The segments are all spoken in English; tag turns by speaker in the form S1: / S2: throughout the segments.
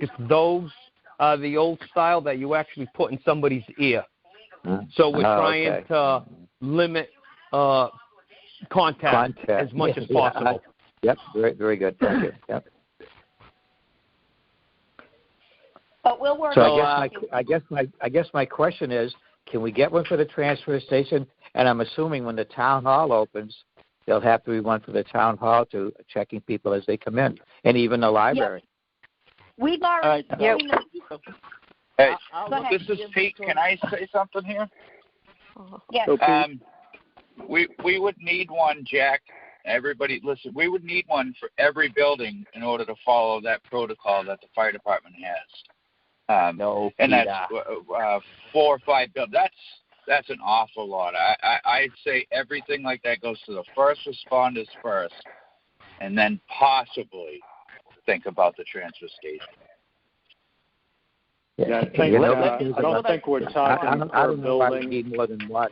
S1: if those are the old style that you actually put in somebody's ear.
S2: Mm.
S1: So we're
S2: Oh,
S1: trying
S2: okay.
S1: to limit uh, contact,
S2: Contact.
S1: as much as
S2: Yeah, I-
S1: possible.
S2: Yep, very, very good. Thank you. Yep.
S3: But we'll work
S2: So
S1: So,
S2: I guess
S3: on
S2: my, I guess my, I guess my question is, can we get one for the transfer station? And I'm assuming when the town hall opens, there'll have to be one for the town hall to checking people as they come in, and even the library.
S3: We've already
S2: All
S4: right.
S3: seen the
S5: Hey,
S2: Uh,
S3: I'll look
S5: this is
S3: at the
S5: Pete. Can I say something here?
S3: yes.
S4: So Pete,
S5: Um, we we would need one, Jack. Everybody, listen. We would need one for every building in order to follow that protocol that the fire department has. Um,
S2: No,
S5: and that's
S2: Peter.
S5: uh, uh, four or five buildings. That's that's an awful lot. I, I I'd say everything like that goes to the first responders first, and then possibly think about the transfer station.
S4: yeah, I
S2: You
S4: think,
S2: know,
S4: uh,
S2: that is
S4: I
S2: about-
S4: don't think we're
S2: I
S4: talking
S2: I don't, I
S4: per
S2: don't know why we
S4: building.
S2: need more than one.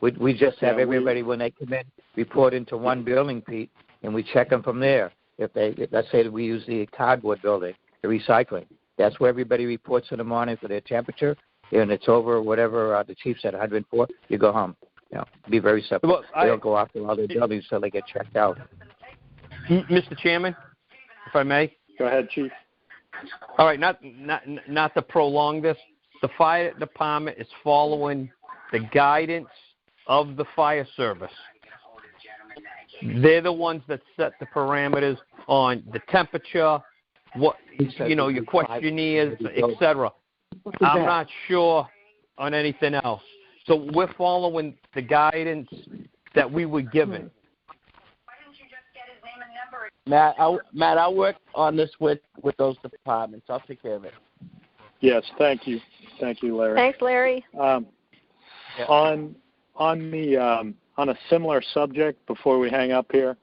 S2: We, we just have
S4: Yeah, we-
S2: everybody, when they come in, report into one building, Pete, and we check them from there. If they, if- let's say that we use the cardboard building, the recycling, that's where everybody reports in the morning for their temperature, and it's over whatever, uh, the chief said, hundred and four, you go home. You know, be very simple.
S1: Well,
S2: They
S1: I-
S2: don't go off to other buildings till they get checked out.
S1: M- Mr. Chairman, if I may.
S4: Go ahead, Chief.
S1: All right, not not not to prolong this. The fire department is following the guidance of the fire service. They're the ones that set the parameters on the temperature, what
S2: He said
S1: you know, your
S2: it'd be five
S1: questionnaires,
S2: degrees
S1: et cetera.
S2: that?
S1: I'm not sure on anything else. So we're following the guidance that we were given.
S6: Matt, I, Matt, I'll work on this with, with those departments. I'll take care of it.
S4: Yes, thank you. Thank you, Larry.
S7: Thanks, Larry.
S4: Um, On on the um, on a similar subject, before we hang up here,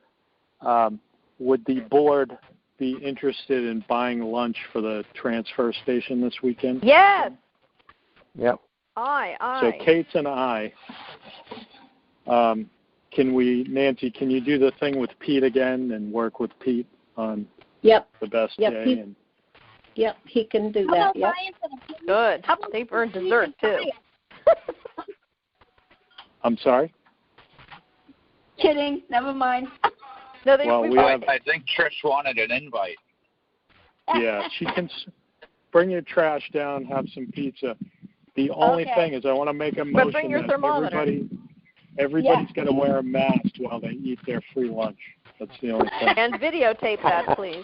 S4: um, would the board be interested in buying lunch for the transfer station this weekend?
S7: Yes,
S2: Yep.
S7: I,
S4: So
S7: I.
S4: Kate's and I. Um, can we, Nancy? Can you do the thing with Pete again and work with Pete on
S8: Yep,
S4: the best
S8: Yeah,
S4: day?
S8: Pete-
S4: And
S8: yep, he can do
S3: How
S8: that,
S3: about
S8: yep.
S3: buying for the police?
S7: Good.
S3: How about
S7: They
S3: the
S7: burn
S3: police
S7: dessert
S3: and
S7: too.
S3: fire?
S4: I'm sorry.
S3: Kidding. Never mind.
S7: No, they.
S4: Well,
S7: we-
S4: we
S5: I,
S4: have-
S5: I think Trish wanted an invite.
S4: yeah, she can s- bring your trash down, have some pizza. The only
S3: Okay.
S4: thing is, I want to make a
S7: But
S4: motion
S7: bring your
S4: that
S7: thermometer.
S4: everybody, everybody's got to wear a mask while they eat their free lunch. That's the only thing.
S7: And videotape that, please.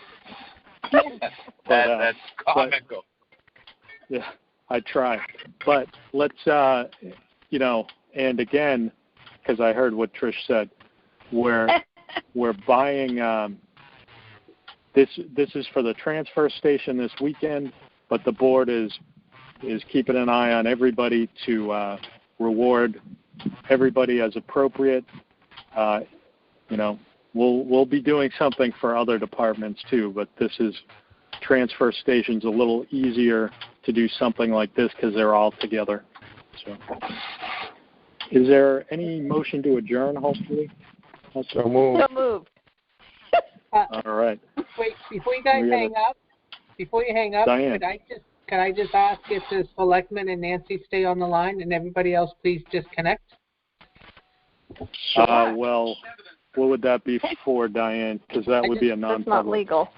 S5: That,
S4: But, uh,
S5: that's comical.
S4: Yeah, I try. But let's, uh, you know, and again, because I heard what Trish said, we're we're buying. Um, this this is for the transfer station this weekend, but the board is is keeping an eye on everybody to uh, reward everybody as appropriate. Uh, you know, we'll we'll be doing something for other departments too, but this is transfer station's a little easier to do something like this because they're all together. So, is there any motion to adjourn? Hopefully,
S9: So move.
S7: So moved.
S4: all right.
S10: Wait, before you guys
S4: We gotta-
S10: hang up, before you hang up,
S4: Diane.
S10: could I just, could I just ask if the selectmen and Nancy stay on the line and everybody else please disconnect?
S4: Uh, well, what would that be for, Diane? Because that
S7: I
S4: would
S7: just-
S4: be a
S7: That's not
S4: non-public.
S7: legal.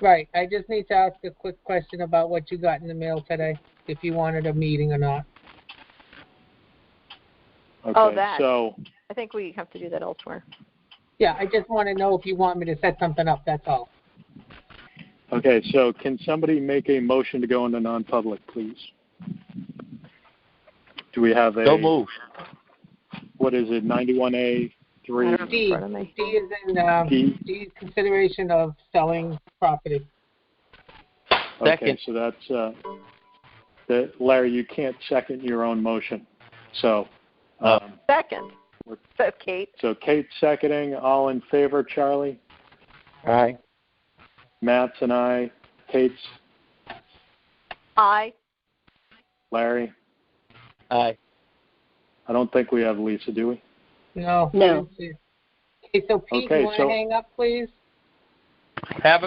S10: Right, I just need to ask a quick question about what you got in the mail today, if you wanted a meeting or not.
S4: Okay,
S7: Oh, that.
S4: So,
S7: I think we have to do that elsewhere.
S10: Yeah, I just want to know if you want me to set something up, that's all.
S4: okay, so can somebody make a motion to go into non-public, please? Do we have a?
S1: Don't move.
S4: What is it? Ninety-one A
S7: I
S4: three
S7: don't have it in front of me.
S10: D is in, um,
S4: D.
S10: D is consideration of selling property.
S4: Okay,
S1: Second.
S4: so that's, uh, that, Larry, you can't second your own motion. So, um,
S7: Second. So Kate.
S4: so Kate seconding, all in favor, Charlie,
S2: Aye.
S4: Matt's and I, Kate's,
S7: I.
S4: Larry.
S2: Aye.
S4: I don't think we have Lisa, do we?
S10: No.
S8: No.
S10: Okay, so Pete,
S4: Okay,
S10: you want
S4: so-
S10: to hang up, please?
S1: Have a